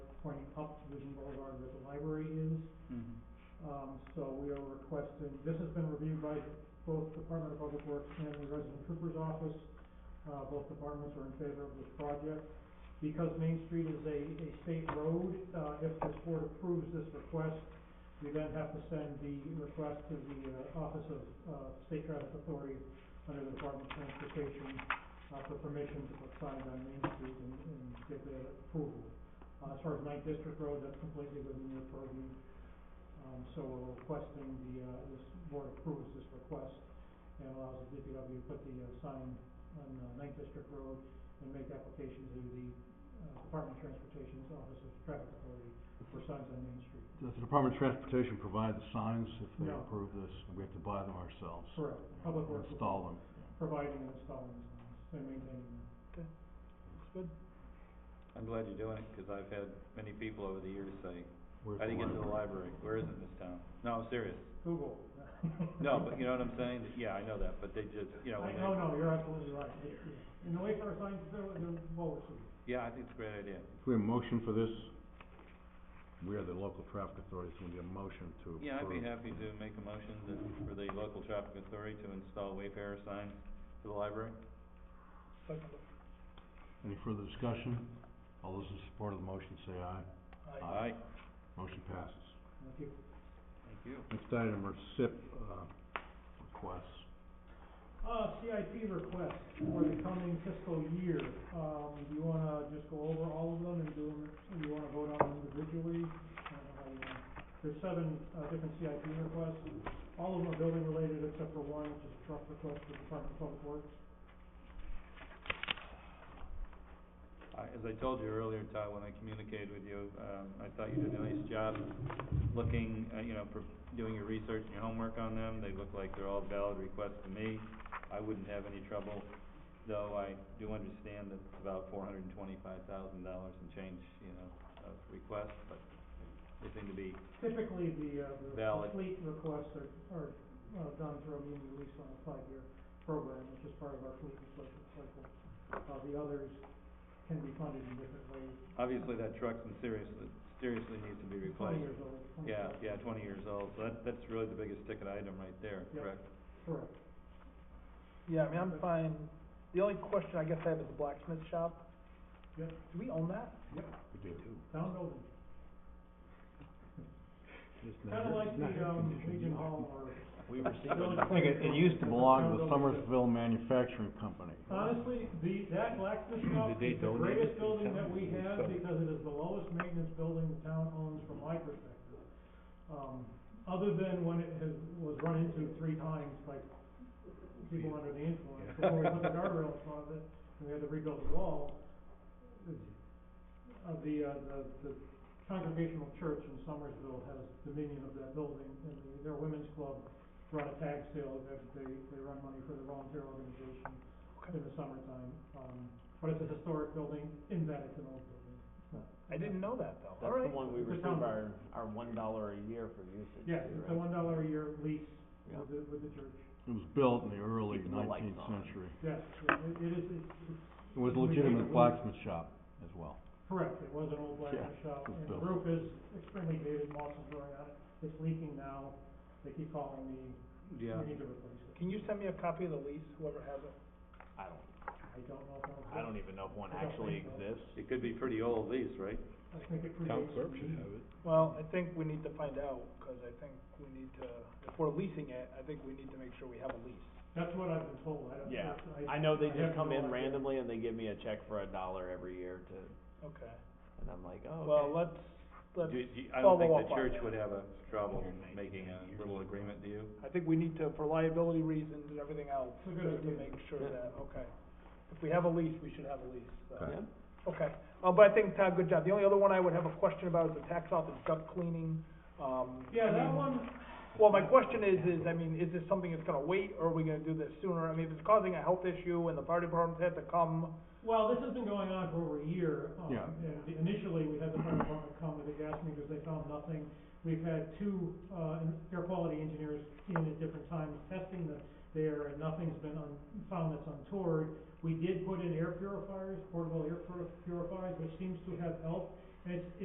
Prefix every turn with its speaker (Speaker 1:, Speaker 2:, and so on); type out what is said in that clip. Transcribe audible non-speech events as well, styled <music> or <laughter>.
Speaker 1: pointing up to Vision Boulevard where the library is.
Speaker 2: Mhm.
Speaker 1: Um, so we are requesting, this has been reviewed by both Department of Public Works and the Resident Trooper's Office. Uh, both departments are in favor of this project. Because Main Street is a, a state road, uh, if this board approves this request, we then have to send the request to the, uh, Office of, uh, State Traffic Authority under the Department of Transportation, uh, for permission to put signs on Main Street and, and get the approval. Uh, as far as Ninth District Road, that's completely within their purview. Um, so we're requesting the, uh, this board approves this request and allows the DPW to put the uh, sign on uh, Ninth District Road and make application to the, uh, Department of Transportation's Office of Traffic Authority for signs on Main Street.
Speaker 3: Does the Department of Transportation provide the signs if they
Speaker 1: No.
Speaker 3: approve this, and we have to buy them ourselves?
Speaker 1: Correct, Public Works. will
Speaker 3: Install them.
Speaker 1: be Providing and installing the signs and maintaining them.
Speaker 3: Good.
Speaker 2: I'm glad you're doing it, because I've had many people over the years say,
Speaker 3: Where's
Speaker 2: how do you get to the
Speaker 3: library?
Speaker 2: library? Where is it in this town? No, I'm <laughs> serious.
Speaker 1: Google.
Speaker 2: No, but you know what I'm saying? Yeah, I know that, but they just, you know,
Speaker 1: <laughs> I,
Speaker 2: when
Speaker 1: no, no,
Speaker 2: they,
Speaker 1: you're absolutely right. It- yeah. And the way for our signs, they're, they're well received.
Speaker 2: yeah, I think it's a great idea.
Speaker 3: If we have a motion for this, we are the local traffic authority, so we need a motion to approve.
Speaker 2: Yeah, I'd be happy to make a motion that, for the local traffic authority to install Wayfarer signs to the library.
Speaker 3: Any further discussion? All those in support of the motion say aye.
Speaker 2: Aye.
Speaker 3: Motion passes.
Speaker 1: Thank you.
Speaker 2: Thank you.
Speaker 3: Next item are SIP, uh, requests.
Speaker 1: Uh, CIP request for the coming fiscal year, um, do you wanna just go over all of them and do them, do you wanna vote on them individually? I don't know how you wanna- There's seven, uh, different CIP requests, all of them are building related except for one, which is a truck request for Department of Public Works.
Speaker 2: I, as I told you earlier, Ty, when I communicated with you, um, I thought you did a nice job looking, uh, you know, for doing your research and your homework on them. They look like they're all valid requests to me. I wouldn't have any trouble, though I do understand that it's about four hundred and twenty-five thousand dollars and change, you know, of requests, but they seem to be,
Speaker 1: Typically, the, uh, the
Speaker 2: Valid.
Speaker 1: fleet requests are, are, uh, done through a means release on a five-year program, which is part of our fleet replacement cycle. Uh, the others can be funded in different ways,
Speaker 2: obviously that truck's in seriously, seriously needs to be
Speaker 1: twenty
Speaker 2: replaced.
Speaker 1: years old,
Speaker 2: Yeah,
Speaker 1: 25.
Speaker 2: yeah, twenty years old, so that, that's really the biggest ticket item right there,
Speaker 1: Yep.
Speaker 2: correct?
Speaker 1: Correct.
Speaker 4: Yeah, I mean, I'm fine, the only question I guess I have is the blacksmith shop.
Speaker 1: Yep.
Speaker 4: Do we own that?
Speaker 3: We do.
Speaker 1: Town building,
Speaker 3: It's not-
Speaker 1: kinda like
Speaker 3: it's not
Speaker 1: the, um,
Speaker 3: conditioned
Speaker 1: Legion
Speaker 3: either.
Speaker 1: Hall or,
Speaker 2: We received.
Speaker 3: I think it, it used to belong to the
Speaker 1: Town building.
Speaker 3: Somersville Manufacturing Company.
Speaker 1: honestly, the, that blacksmith shop
Speaker 2: Did they
Speaker 1: is the
Speaker 2: donate it to
Speaker 1: greatest
Speaker 2: the
Speaker 1: building
Speaker 2: town?
Speaker 1: that we have
Speaker 2: So-
Speaker 1: because it is the lowest maintenance building the town owns from my perspective. Um, other than when it has, was run into three times, like, people under the influence,
Speaker 2: Yeah.
Speaker 1: before we put the guardrail in front of it, and we had to rebuild the wall. It's- Uh, the, uh, the, the Congregational Church in Somersville has dominion of that building, and the- their women's club run a tag sale, that they, they run money for the volunteer organization
Speaker 4: Okay.
Speaker 1: in the summertime. Um, but it's a historic building in that it's an old building. It's not-
Speaker 4: I didn't know that though,
Speaker 5: That's the
Speaker 4: alright.
Speaker 5: one we
Speaker 1: It's a
Speaker 5: receive
Speaker 1: town-
Speaker 5: our, our one dollar a year for usage.
Speaker 1: Yes, it's a
Speaker 5: right?
Speaker 1: one dollar a year lease
Speaker 5: Yeah.
Speaker 1: with the, with the church.
Speaker 3: It was built in the early
Speaker 5: Keeping the lights
Speaker 3: nineteenth
Speaker 5: on.
Speaker 3: century.
Speaker 1: Yes, yeah, it, it is, it's, it's
Speaker 3: It was a legitimate blacksmith shop as well.
Speaker 1: correct, it was an old blacksmith shop,
Speaker 3: it's
Speaker 1: and the
Speaker 3: built.
Speaker 1: roof is extremely dated, moss is growing on it, it's leaking now. They keep calling me,
Speaker 2: Yeah.
Speaker 1: we need to replace it.
Speaker 4: Can you send me a copy of the lease, whoever has it?
Speaker 5: I don't,
Speaker 1: I don't know if I'll.
Speaker 5: I don't even know if one
Speaker 1: I don't
Speaker 5: actually
Speaker 1: think so.
Speaker 5: exists.
Speaker 2: It could be pretty old lease, right?
Speaker 1: I think it predates.
Speaker 3: it.
Speaker 4: Well, I think we need to find out, cause I think we need to, if we're leasing it, I think we need to make sure we have a lease.
Speaker 1: That's what I've been told, I don't.
Speaker 5: Yeah,
Speaker 1: that's-
Speaker 5: I know they
Speaker 1: I have
Speaker 5: just come
Speaker 1: no
Speaker 5: in
Speaker 1: idea.
Speaker 5: randomly and they give me a check for a dollar every year to,
Speaker 4: Okay,
Speaker 5: and I'm like, oh, okay.
Speaker 4: well, let's, let's,
Speaker 2: Do, do, I don't
Speaker 4: follow
Speaker 2: think
Speaker 4: up
Speaker 2: the
Speaker 4: on
Speaker 2: church
Speaker 4: that.
Speaker 2: would have a trouble making a little agreement, do you?
Speaker 4: I think we need to, for liability reasons and everything else,
Speaker 1: It's a good
Speaker 4: just to
Speaker 1: idea.
Speaker 4: make sure
Speaker 5: Yeah.
Speaker 4: that, okay. If we have a lease, we should have a lease, so.
Speaker 3: Okay.
Speaker 5: Yeah.
Speaker 4: Okay, uh, but I think, Todd, good job. The only other one I would have a question about is the tax office duct cleaning, um.
Speaker 1: Yeah,
Speaker 4: I
Speaker 1: that
Speaker 4: mean,
Speaker 1: one,
Speaker 4: Well, my question is, is, I mean, is this something that's gonna wait, or are we gonna do this sooner? I mean, if it's causing a health issue and the fire department's had to come,
Speaker 1: well, this has been going on for over a year. um,
Speaker 3: Yeah.
Speaker 1: And initially, we had the fire department come with the gas meters, they found nothing. We've had two, uh, en- air quality engineers in at different times testing the, there, and nothing's been un, found that's untoward. We did put in air purifiers, portable air pur- purifiers, which seems to have helped, and it's,